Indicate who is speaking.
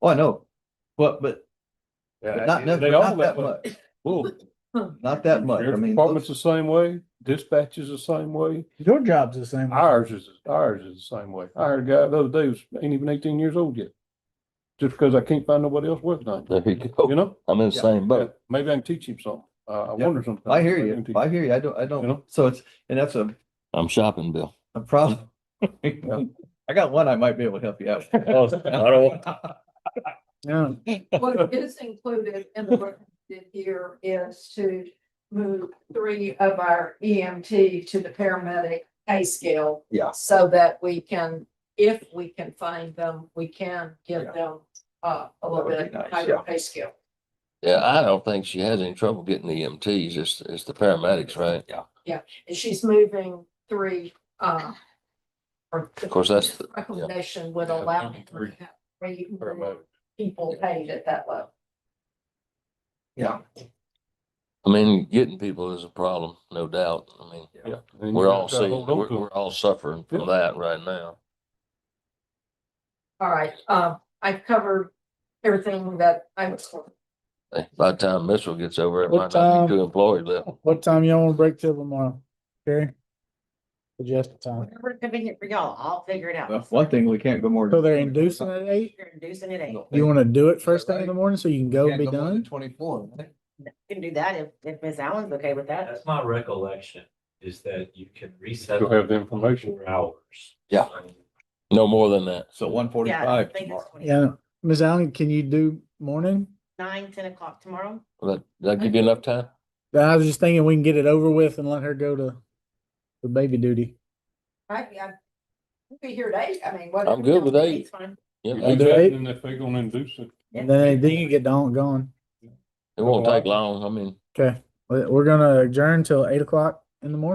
Speaker 1: Oh, I know, but, but
Speaker 2: Yeah,
Speaker 1: But not, no,
Speaker 2: they
Speaker 1: but
Speaker 2: all
Speaker 1: not that
Speaker 2: way.
Speaker 1: much,
Speaker 2: Well,
Speaker 1: not that much. I
Speaker 2: Sheriff's
Speaker 1: mean,
Speaker 2: department's
Speaker 1: those-
Speaker 2: the same way, dispatch is the same way,
Speaker 3: Your job's the same. way.
Speaker 2: ours is, ours is the same way. I hired a guy the other day, who was ain't even eighteen years old yet. Just because I can't find nobody else working on
Speaker 4: There you
Speaker 2: it, you
Speaker 4: go.
Speaker 2: know?
Speaker 4: I'm in the
Speaker 1: Yeah.
Speaker 4: same boat.
Speaker 2: Maybe I can teach him something. Uh, I
Speaker 1: Yeah.
Speaker 2: wonder sometimes.
Speaker 1: I hear
Speaker 2: Maybe
Speaker 1: you,
Speaker 2: can teach-
Speaker 1: I hear you, I don't, I
Speaker 2: You know?
Speaker 1: don't, so it's, and that's a,
Speaker 4: I'm shopping, Bill.
Speaker 1: a problem. I got one I might be able to help you out. with.
Speaker 3: Yeah.
Speaker 5: What is included in the budget here is to move three of our EMT to the paramedic pay scale.
Speaker 1: Yeah.
Speaker 5: So that we can, if we can find them, we can
Speaker 1: Yeah.
Speaker 5: give them uh a
Speaker 1: That
Speaker 5: little
Speaker 1: would be
Speaker 5: bit
Speaker 1: nice,
Speaker 5: higher
Speaker 1: yeah.
Speaker 5: pay scale.
Speaker 4: Yeah, I don't think she has any trouble getting the EMTs. It's, it's the paramedics, right? Yeah.
Speaker 5: And she's moving three uh. Of
Speaker 4: course, that's the- yeah.
Speaker 5: Recommendation would
Speaker 2: Yeah,
Speaker 5: allow
Speaker 2: maybe
Speaker 5: me to
Speaker 2: three.
Speaker 5: have three
Speaker 2: Or
Speaker 5: more
Speaker 2: maybe.
Speaker 5: people paid at that level.
Speaker 1: Yeah,
Speaker 4: I mean, getting people is a problem, no doubt. I mean,
Speaker 2: Yeah. And you
Speaker 4: we're
Speaker 2: gotta
Speaker 4: all
Speaker 2: try to
Speaker 4: seeing,
Speaker 2: hold on
Speaker 4: we're,
Speaker 2: to 'em.
Speaker 4: we're all suffering
Speaker 2: Yeah.
Speaker 4: from that right now.
Speaker 5: All right, uh, I've covered everything that I was for.
Speaker 4: Hey, By the time Mitchell gets over, it
Speaker 3: What
Speaker 4: might not
Speaker 3: time-
Speaker 4: be two employees left.
Speaker 3: What time y'all wanna break till tomorrow? Okay. Suggest a time.
Speaker 6: Whatever convenient for y'all, I'll figure it
Speaker 1: well,
Speaker 6: out.
Speaker 1: one thing we can't go more.
Speaker 3: So they're inducing at eight?
Speaker 6: You're inducing it, ain't,
Speaker 3: You wanna do it first thing in the morning so you can go and be done?
Speaker 1: Twenty-four.
Speaker 6: you can do that if, if Ms. Allen's okay with that.
Speaker 7: That's my recollection, is that you can reset
Speaker 2: You'll have the information.
Speaker 7: four hours.
Speaker 4: Yeah.
Speaker 7: So-
Speaker 4: No more than that.
Speaker 1: So one
Speaker 6: Yeah, I
Speaker 1: forty-five
Speaker 6: think
Speaker 1: tomorrow.
Speaker 6: it's 20
Speaker 3: Yeah. Ms. Allen, can you do morning?
Speaker 6: Nine, ten o'clock tomorrow.
Speaker 4: That, that give you enough time?
Speaker 3: I was just thinking we can get it over with and let her go to the baby duty.
Speaker 5: Right, yeah. We'll Be here at eight, I mean, what?
Speaker 4: I'm good with eight.
Speaker 6: It's fine.
Speaker 4: Yeah,
Speaker 2: You
Speaker 3: I'll
Speaker 2: do
Speaker 3: do
Speaker 2: that,
Speaker 3: eight.
Speaker 2: And if they're gonna induce it,
Speaker 6: Yeah.
Speaker 3: And then, then you get down, gone.
Speaker 4: it won't take long. I mean,
Speaker 3: Okay, We- we're gonna adjourn till eight o'clock in the morning.